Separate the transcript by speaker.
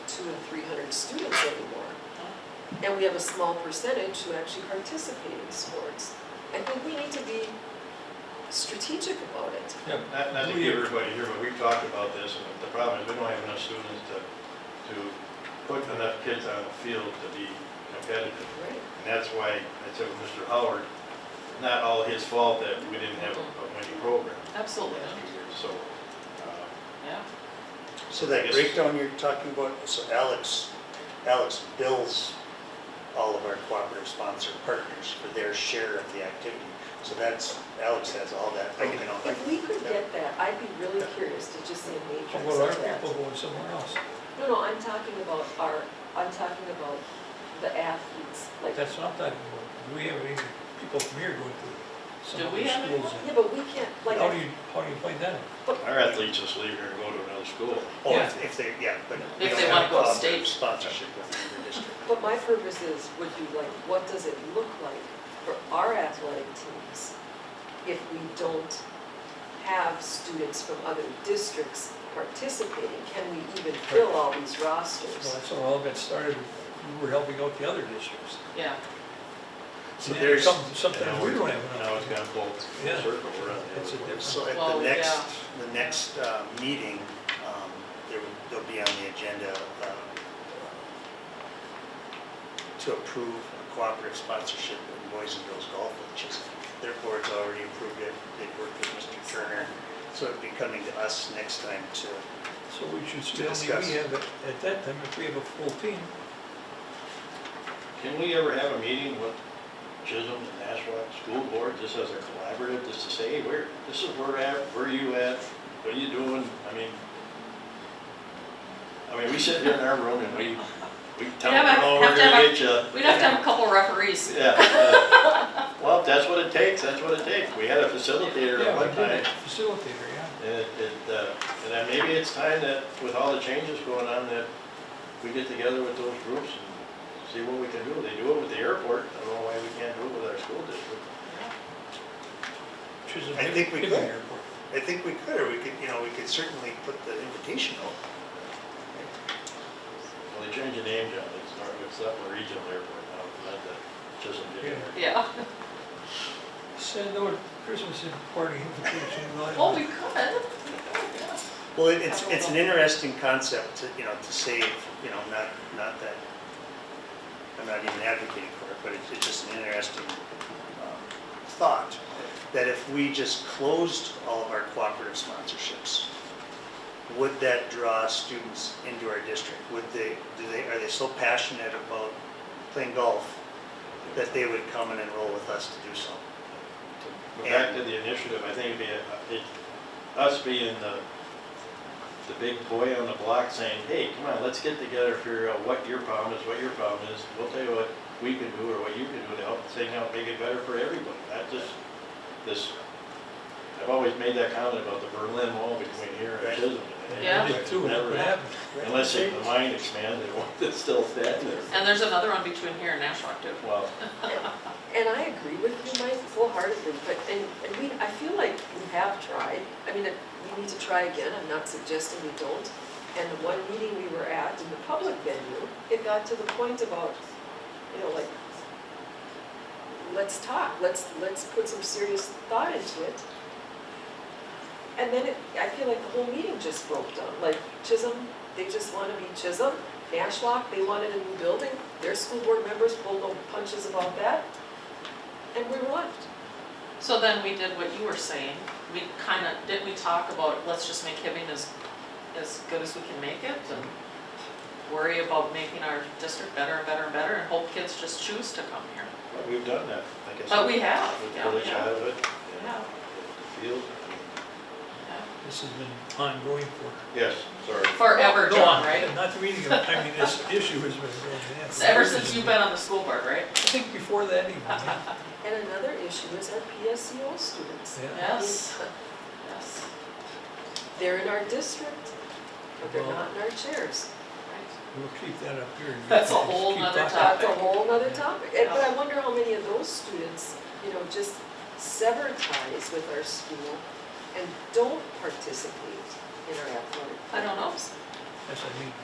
Speaker 1: two and three hundred students anymore. And we have a small percentage who actually participate in sports. I think we need to be strategic about it.
Speaker 2: Yeah,
Speaker 3: Not, not to
Speaker 2: We-
Speaker 3: keep everybody here, but we've talked about this, and the problem is we don't have enough students to, to put enough kids on the field to be competitive.
Speaker 1: Right.
Speaker 3: And that's why I said with Mr. Howard, not all his fault that we didn't have a a winning program
Speaker 4: Absolutely,
Speaker 3: last few years, so. uh,
Speaker 4: yeah.
Speaker 5: So that breakdown you're talking about, so Alex, Alex bills all of our cooperative sponsor partners for their share of the activity. So that's, Alex has all that
Speaker 3: I can-
Speaker 5: broken out.
Speaker 1: If we could get that, I'd be really curious to just see a
Speaker 2: How
Speaker 1: matrix
Speaker 2: about our
Speaker 1: of that.
Speaker 2: people going somewhere else?
Speaker 1: No, no, I'm talking about our, I'm talking about the athletes, like,
Speaker 2: That's what I'm talking about. Do we have any people from here going to some
Speaker 4: Do
Speaker 2: of
Speaker 4: we
Speaker 2: the
Speaker 4: have
Speaker 2: schools?
Speaker 1: yeah, but we can't, like,
Speaker 2: How do you, how do you find that? out?
Speaker 3: Our athletes just leave here and go to another school.
Speaker 5: Or
Speaker 2: Yeah.
Speaker 5: Oh, if if they, yeah, but. we
Speaker 4: If
Speaker 5: don't
Speaker 4: they
Speaker 5: have
Speaker 4: wanna
Speaker 5: a
Speaker 4: go state.
Speaker 5: cooperative Sponsorship with your district.
Speaker 1: But my purpose is, would you like, what does it look like for our athletic teams if we don't have students from other districts participating? Can we even fill all these
Speaker 2: Well,
Speaker 1: rosters?
Speaker 2: that's how it all got started. We were helping out the other districts.
Speaker 4: Yeah,
Speaker 5: So
Speaker 2: Yeah,
Speaker 5: there's,
Speaker 2: some- Sometimes
Speaker 3: Now
Speaker 2: we
Speaker 3: we're-
Speaker 2: don't have
Speaker 3: Now it's
Speaker 2: enough.
Speaker 3: gone full
Speaker 2: Yeah.
Speaker 3: circle, we're on the
Speaker 2: It's a
Speaker 3: other way.
Speaker 2: different,
Speaker 5: so at
Speaker 4: Well,
Speaker 5: the next,
Speaker 4: yeah.
Speaker 5: the next uh, meeting, um, there will, there'll be on the agenda uh, to approve a cooperative sponsorship in Boys and Girls Golf, which is, their board's already approved it, they've worked with Mr. Turner. So it'd be coming to us next time to,
Speaker 2: so we should still,
Speaker 5: discuss.
Speaker 2: we have, a- at that time, if we have a full team,
Speaker 3: Can we ever have a meeting with Chisholm and Nashua School Board, just as a collaborative, just to say, hey, where, this is where we're at, where you at, what are you doing? I mean, I mean, we sit here in our room and we, we tell
Speaker 4: Yeah,
Speaker 3: them,
Speaker 4: but
Speaker 3: oh,
Speaker 4: have
Speaker 3: we're
Speaker 4: to
Speaker 3: gonna
Speaker 4: have
Speaker 3: get you.
Speaker 4: we'd have to have a couple referees.
Speaker 3: Yeah. uh, Well, if that's what it takes, that's what it takes. We had a facilitator at
Speaker 2: yeah, we
Speaker 3: one
Speaker 2: did
Speaker 3: time.
Speaker 2: it, facilitator, yeah.
Speaker 3: And it, it, uh, and then maybe it's time that, with all the changes going on, that we get together with those groups and see what we can do. They do it with the airport, I don't know why we can't do it with our school district.
Speaker 2: which is a
Speaker 5: I
Speaker 2: big-
Speaker 5: think we
Speaker 2: big
Speaker 5: could.
Speaker 2: airport.
Speaker 5: I think we could, or we could, you know, we could certainly put the invitation out.
Speaker 3: Well, they changed the name, John, it's not, it's not the regional airport now, not the Chisholm District.
Speaker 2: Yeah.
Speaker 4: Yeah,
Speaker 2: Send out Christmas party invitation.
Speaker 4: well, we could.
Speaker 5: Well, it- it's, it's an interesting concept, to, you know, to save, you know, not, not that, I'm not even advocating for it, but it's, it's just an interesting um, thought, that if we just closed all of our cooperative sponsorships, would that draw students into our district? Would they, do they, are they so passionate about playing golf that they would come and enroll with us to do so?
Speaker 3: But Back to the initiative, I think it'd be, a- it- us being the, the big boy on the block saying, hey, come on, let's get together, figure out what your problem is, what your problem is. We'll tell you what we can do or what you can do to help thing out, make it better for everybody. Not just this, I've always made that comment about the Berlin Wall between here and Chisholm. and it
Speaker 4: Yeah.
Speaker 2: did too, and
Speaker 3: never
Speaker 2: it
Speaker 3: happened.
Speaker 2: happened.
Speaker 3: Unless it- the mind expands, it won't- it's still standing there.
Speaker 4: And there's another one between here and Nashua too.
Speaker 3: Well,
Speaker 1: And I agree with you, Mike, wholeheartedly, but, and, and we, I feel like we have tried. I mean, we need to try again, I'm not suggesting we don't. And the one meeting we were at in the public venue, it got to the point about, you know, like, let's talk, let's, let's put some serious thought into it. And then it, I feel like the whole meeting just broke down, like Chisholm, they just wanna be Chisholm. Nashwauk, they wanted a new building, their school board members pulled no punches about that, and we were left.
Speaker 4: So then we did what you were saying. We kind of, didn't we talk about, let's just make Hibbing as, as good as we can make it? And worry about making our district better and better and better and hope kids just choose to come here.
Speaker 3: we've done that, I guess.
Speaker 4: But we have,
Speaker 3: With
Speaker 4: yeah,
Speaker 3: early
Speaker 4: yeah,
Speaker 3: childhood, and
Speaker 4: yeah,
Speaker 3: the field.
Speaker 4: yeah.
Speaker 2: This has been ongoing for.
Speaker 3: Yes, sorry.
Speaker 4: Forever,
Speaker 2: No,
Speaker 4: John, right?
Speaker 2: Not reading, it. I mean, this issue has been going on.
Speaker 4: It's Ever since you've been on the school board, right?
Speaker 2: I think before that even, yeah.
Speaker 1: And another issue is our PSEO students.
Speaker 2: Yeah.
Speaker 4: Yes, yes,
Speaker 1: They're in our district, but they're not in our chairs.
Speaker 4: right.
Speaker 2: We'll keep that up here. and
Speaker 4: That's a
Speaker 2: just
Speaker 4: whole
Speaker 2: keep
Speaker 4: nother
Speaker 2: talking.
Speaker 1: That's a whole nother topic, And- but I wonder how many of those students, you know, just sever ties with our school and don't participate in our athletic.
Speaker 4: I don't know.
Speaker 2: Yes, I mean,